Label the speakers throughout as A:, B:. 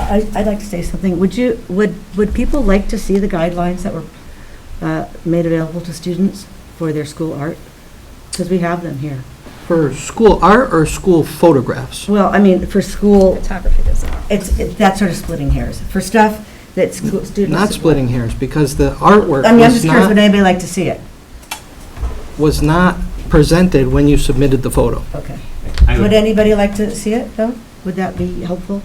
A: I- I'd like to say something. Would you, would, would people like to see the guidelines that were uh, made available to students for their school art? Because we have them here.
B: For school art or school photographs?
A: Well, I mean, for school,
C: Photography doesn't.
A: it's, it's that sort of splitting hairs. For stuff that school students.
B: Not splitting hairs, because the artwork
A: I mean, I'm
B: was
A: just curious, would
B: not,
A: anybody like to see it?
B: was not presented when you submitted the photo.
A: Okay.
D: I
A: Would
D: would-
A: anybody like to see it, though? Would that be helpful?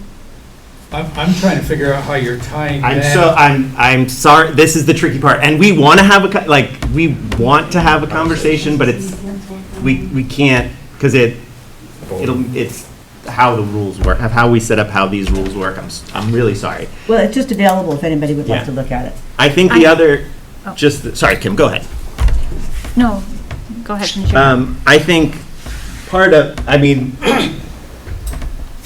E: I'm, I'm trying to figure out how you're tying
D: I'm
E: that.
D: so I'm I'm sorry. This is the tricky part, and we want to have a co- like we want to have a conversation, but it's we we can't because it it'll it's how the rules work, of how we set up how these rules work. I'm s- I'm really sorry.
A: Well, it's just available if anybody would like
D: Yeah.
A: to look at it.
D: I think the
C: I-
D: other
C: Oh.
D: just the- sorry, Kim. Go ahead.
C: No, go ahead, finish your-
D: Um, I think part of, I mean,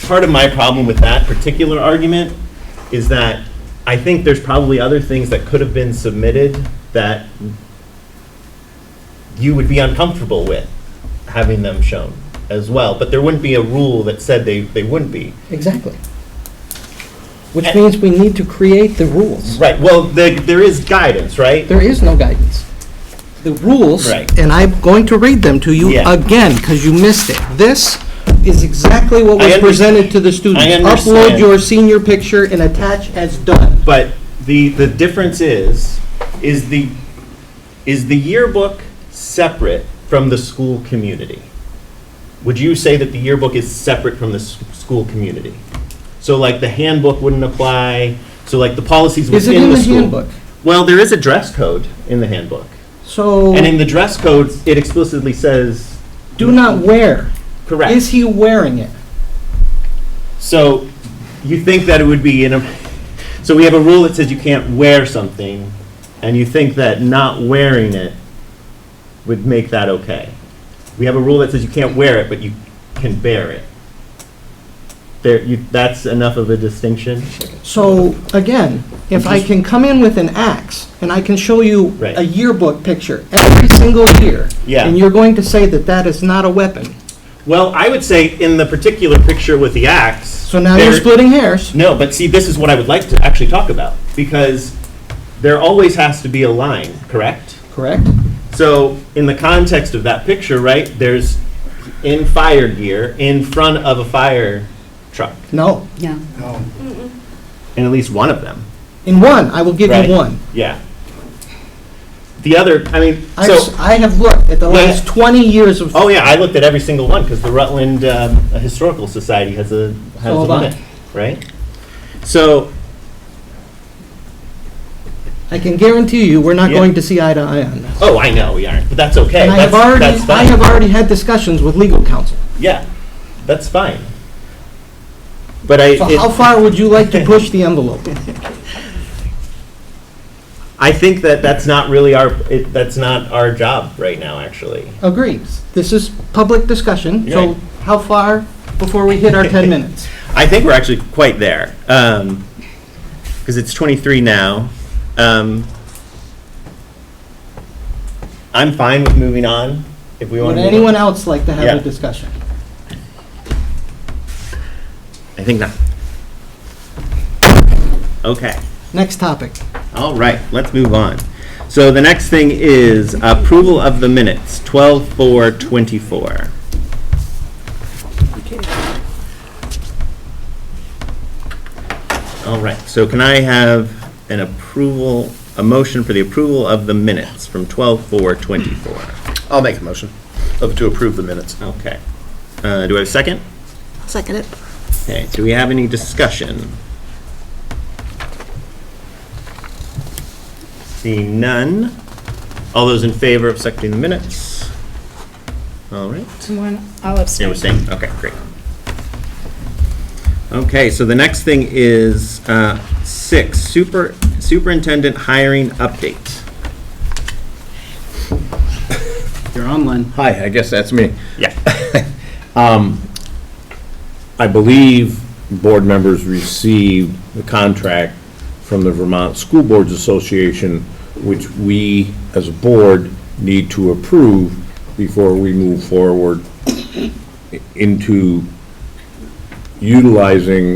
D: part of my problem with that particular argument is that I think there's probably other things that could have been submitted that you would be uncomfortable with having them shown as well, but there wouldn't be a rule that said they, they wouldn't be.
B: Exactly. Which
D: And-
B: means we need to create the rules.
D: Right, well, there, there is guidance, right?
B: There is no guidance. The rules,
D: Right.
B: and I'm going to read them to you
D: Yeah.
B: again, because you missed it. This is exactly what
D: I
B: was
D: under-
B: presented to the students. Upload
D: understand.
B: your senior picture and attach as done.
D: But the, the difference is, is the, is the yearbook separate from the school community? Would you say that the yearbook is separate from the s- school community? So like the handbook wouldn't apply, so like the policies
B: Is it
D: within
B: in
D: the
B: the
D: school?
B: handbook?
D: Well, there is a dress code in the handbook.
B: So,
D: And in the dress code, it explicitly says,
B: do not wear.
D: correct.
B: Is he wearing it?
D: So you think that it would be in a, so we have a rule that says you can't wear something, and you think that not wearing it would make that okay? We have a rule that says you can't wear it, but you can bear it. There, you, that's enough of a distinction?
B: So, again, if I can come in with an axe, and I can show you
D: Right.
B: a yearbook picture every single year,
D: Yeah.
B: and you're going to say that that is not a weapon,
D: Well, I would say in the particular picture with the axe.
B: so now you're
D: there-
B: splitting hairs.
D: No, but see, this is what I would like to actually talk about, because there always has to be a line, correct?
B: Correct?
D: So, in the context of that picture, right, there's in fire gear in front of a fire truck,
B: No.
A: Yeah.
E: No.
D: in at least one of them.
B: In one, I will give
D: right?
B: you one.
D: Yeah. The other, I mean,
B: I've
D: so,
B: s- I have looked at the
D: Yeah.
B: last 20 years of,
D: oh yeah, I looked at every single one because the Rutland um, Historical Society has a has
B: So
D: a
B: have I.
D: limit, right? So,
B: I can guarantee you, we're not
D: Yeah.
B: going to see eye to eye on this.
D: oh, I know we aren't, but that's okay.
B: And I
D: that's,
B: have already,
D: that's
B: I
D: fine.
B: have already had discussions with legal counsel.
D: yeah, that's fine. But I,
B: So
D: it-
B: how far would you like to push the envelope?
D: I think that that's not really our it, that's not our job right now, actually.
B: Agreed. This is public discussion, so
D: Right.
B: how far before we hit our 10 minutes?
D: I think we're actually quite there because it's 23 now. Um, I'm fine with moving on if we want
B: Would
D: to.
B: anyone else like to have
D: Yeah.
B: a discussion?
D: I think not. Okay.
B: Next topic.
D: All right. Let's move on. So the next thing is approval of the minutes 12 4 24. All right, so can I have an approval, a motion for the approval of the minutes from 12:4:24?
F: I'll make a motion of- to approve the minutes.
D: Okay. Uh, Do I have a second?
C: Second it.
D: Okay, do we have any discussion? Seeing none. All those in favor of accepting the minutes? All right.
C: One, I'll
D: Yeah,
C: abstain.
D: we're staying, okay, great. Okay, so the next thing is uh, six, super superintendent hiring update.
B: You're online.
F: Hi, I guess that's me.
D: Yeah.
F: I believe board members received the contract from the Vermont School Boards Association, which we, as a board, need to approve before we move forward into utilizing